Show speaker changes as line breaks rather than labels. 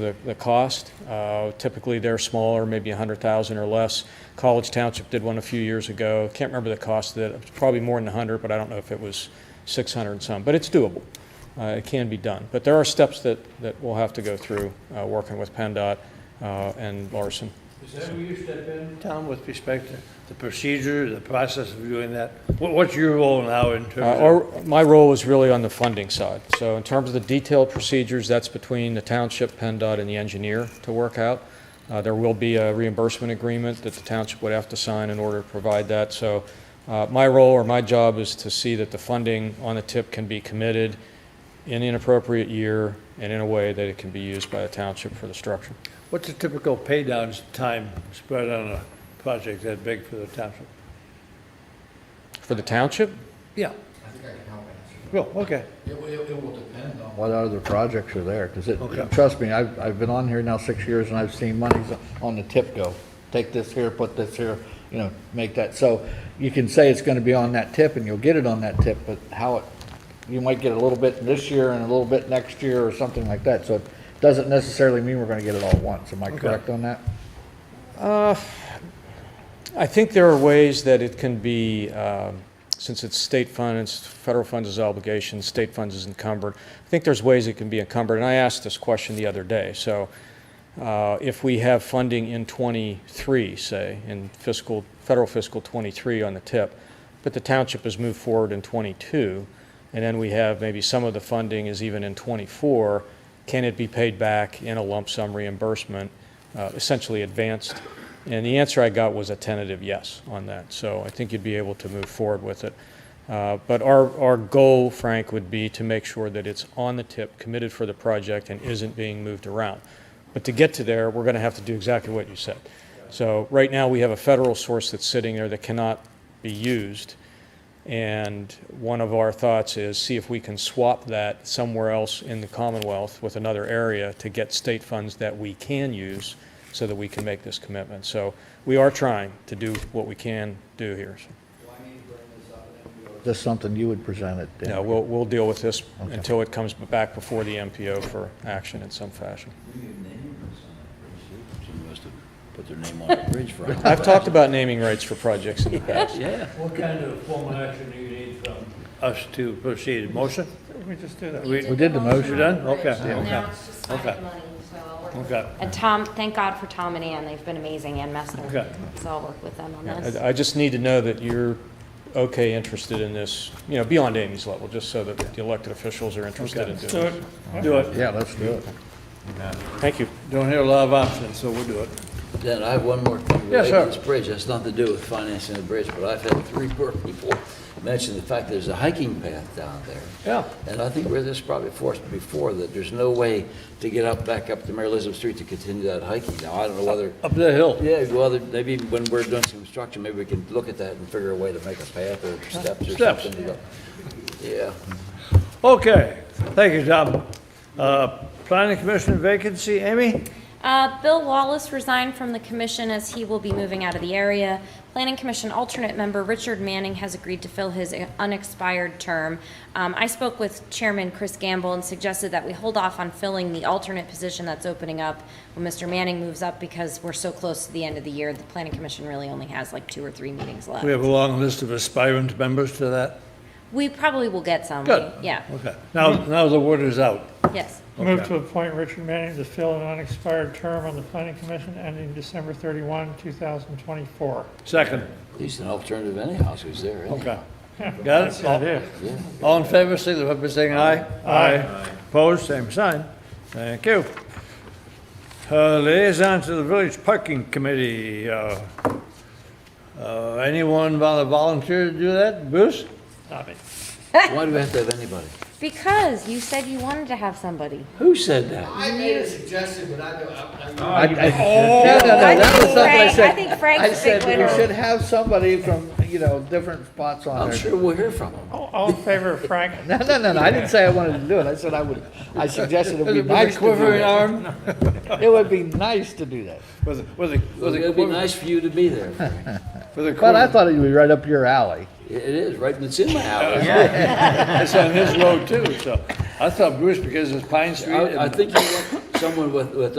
the, the cost. Uh, Typically, they're smaller, maybe 100,000 or less. College Township did one a few years ago. Can't remember the cost of it. It's probably more than 100, but I don't know if it was 600 and some, but it's doable. Uh, It can be done. But there are steps that, that we'll have to go through, uh, working with PennDOT uh, and Larson.
Is that where you step in, Tom, with respect to the procedure, the process of doing that? What, what's your role now in
Uh,
terms of?
our- My role is really on the funding side. So in terms of the detailed procedures, that's between the township, PennDOT, and the engineer to work out. Uh, There will be a reimbursement agreement that the township would have to sign in order to provide that. So uh, my role or my job is to see that the funding on the tip can be committed in an appropriate year and in a way that it can be used by the township for the structure.
What's the typical pay down time spread on a project that big for the township?
For the township,
Yeah,
I think I can help answer
well, okay.
that. It, will- it, it will depend on
what other projects are there? Because it,
Okay.
trust me, I've, I've been on here now six years and I've seen monies on the tip go. Take this here, put this here, you know, make that, so you can say it's gonna be on that tip and you'll get it on that tip, but how it, you might get a little bit this year and a little bit next year or something like that, so it doesn't necessarily mean we're gonna get it all at once, am I correct on that?
I think there are ways that it can be, um, since it's state funds, federal funds is obligation, state funds is encumbered. I think there's ways it can be encumbered, and I asked this question the other day. So uh, if we have funding in '23, say, in fiscal, federal fiscal '23 on the tip, but the township has moved forward in '22, and then we have maybe some of the funding is even in '24, can it be paid back in a lump sum reimbursement, uh, essentially advanced? And the answer I got was a tentative yes on that. So I think you'd be able to move forward with it. Uh, But our, our goal, Frank, would be to make sure that it's on the tip, committed for the project, and isn't being moved around. But to get to there, we're going to have to do exactly what you said. So right now, we have a federal source that's sitting there that cannot be used. And one of our thoughts is see if we can swap that somewhere else in the Commonwealth with another area to get state funds that we can use so that we can make this commitment. So we are trying to do what we can do here.
Just something you would present it.
No, we'll, we'll deal with this until it comes back before the MPO for action in some fashion.
Somebody must have put their name on the bridge for it.
I've talked about naming rights for projects in the past.
Yeah.
What kind of formal action do you need from? Us to proceed, motion? We just do that.
We did the motion.
You done? Okay,
And
okay,
now it's just finding
okay.
money, so I'll work with-
Okay,
And Tom, thank God for Tom and Ann, they've been amazing, and
Okay.
Mester. So I'll work with them on this.
I I just need to know that you're okay interested in this, you know, beyond Amy's level, just so that the elected officials are interested in doing
do
it.
it, do it.
Yeah, let's do it.
Thank you.
Don't hear a lot of options, so we'll do it.
Dan, I have one more thing
Yes,
related
sir.
to this bridge. That's nothing to do with financing the bridge, but I've had three people mention the fact there's a hiking path down there.
Yeah.
And I think where this probably forced before, that there's no way to get up, back up to Mary Elizabeth Street to continue that hiking. Now, I don't know whether,
Up the hill.
yeah, whether, maybe when we're doing some construction, maybe we can look at that and figure a way to make a path or steps or
Uh, Steps.
something. to go. Yeah.
Okay, thank you, Tom. Uh, Planning Commission vacancy, Amy?
Uh, Bill Wallace resigned from the commission as he will be moving out of the area. Planning Commission alternate member Richard Manning has agreed to fill his unexpired term. Um, I spoke with Chairman Chris Gamble and suggested that we hold off on filling the alternate position that's opening up when Mr. Manning moves up, because we're so close to the end of the year, the Planning Commission really only has like two or three meetings left.
We have a long list of aspirant members to that.
We probably will get some.
Good.
Yeah,
Okay, now, now the word is out.
yes.
Move to appoint Richard Manning to fill an unexpired term on the planning commission ending December 31, 2024.
Second,
At least an alternative anyhow, so he's there, isn't it?
okay. Got it?
That is.
All in favor, signify by saying aye. Aye. Opposed, same sign. Thank you. Uh, Liaison to the Village Parking Committee. uh, uh, Anyone want to volunteer to do that? Bruce?
Stop it.
Why do we have to have anybody?
Because you said you wanted to have somebody.
Who said that?
I made a suggestion, but I don't, I'm, I'm.
I- I- No, no, no, that was something I
Frank-
said.
I think Frank's
I
a big
said
winner.
we should have somebody from, you know, different spots on
I'm
there.
sure we'll hear from him.
All all in favor of Frank?
No, no, no, no, I didn't say I wanted to do it, I said I would, I suggested it would be nice to do
Quivering
that.
arm?
It would be nice to do that,
With a, with a,
Well,
with a
it'd be
quiver-
nice for you to be there. Frank.
with a
but I
quiver.
thought it would be right up your alley.
It is, right, it's in my hours.
That's on his road too, so. I thought Bruce, because it's Pine Street.
I I
and-
think you want someone with, with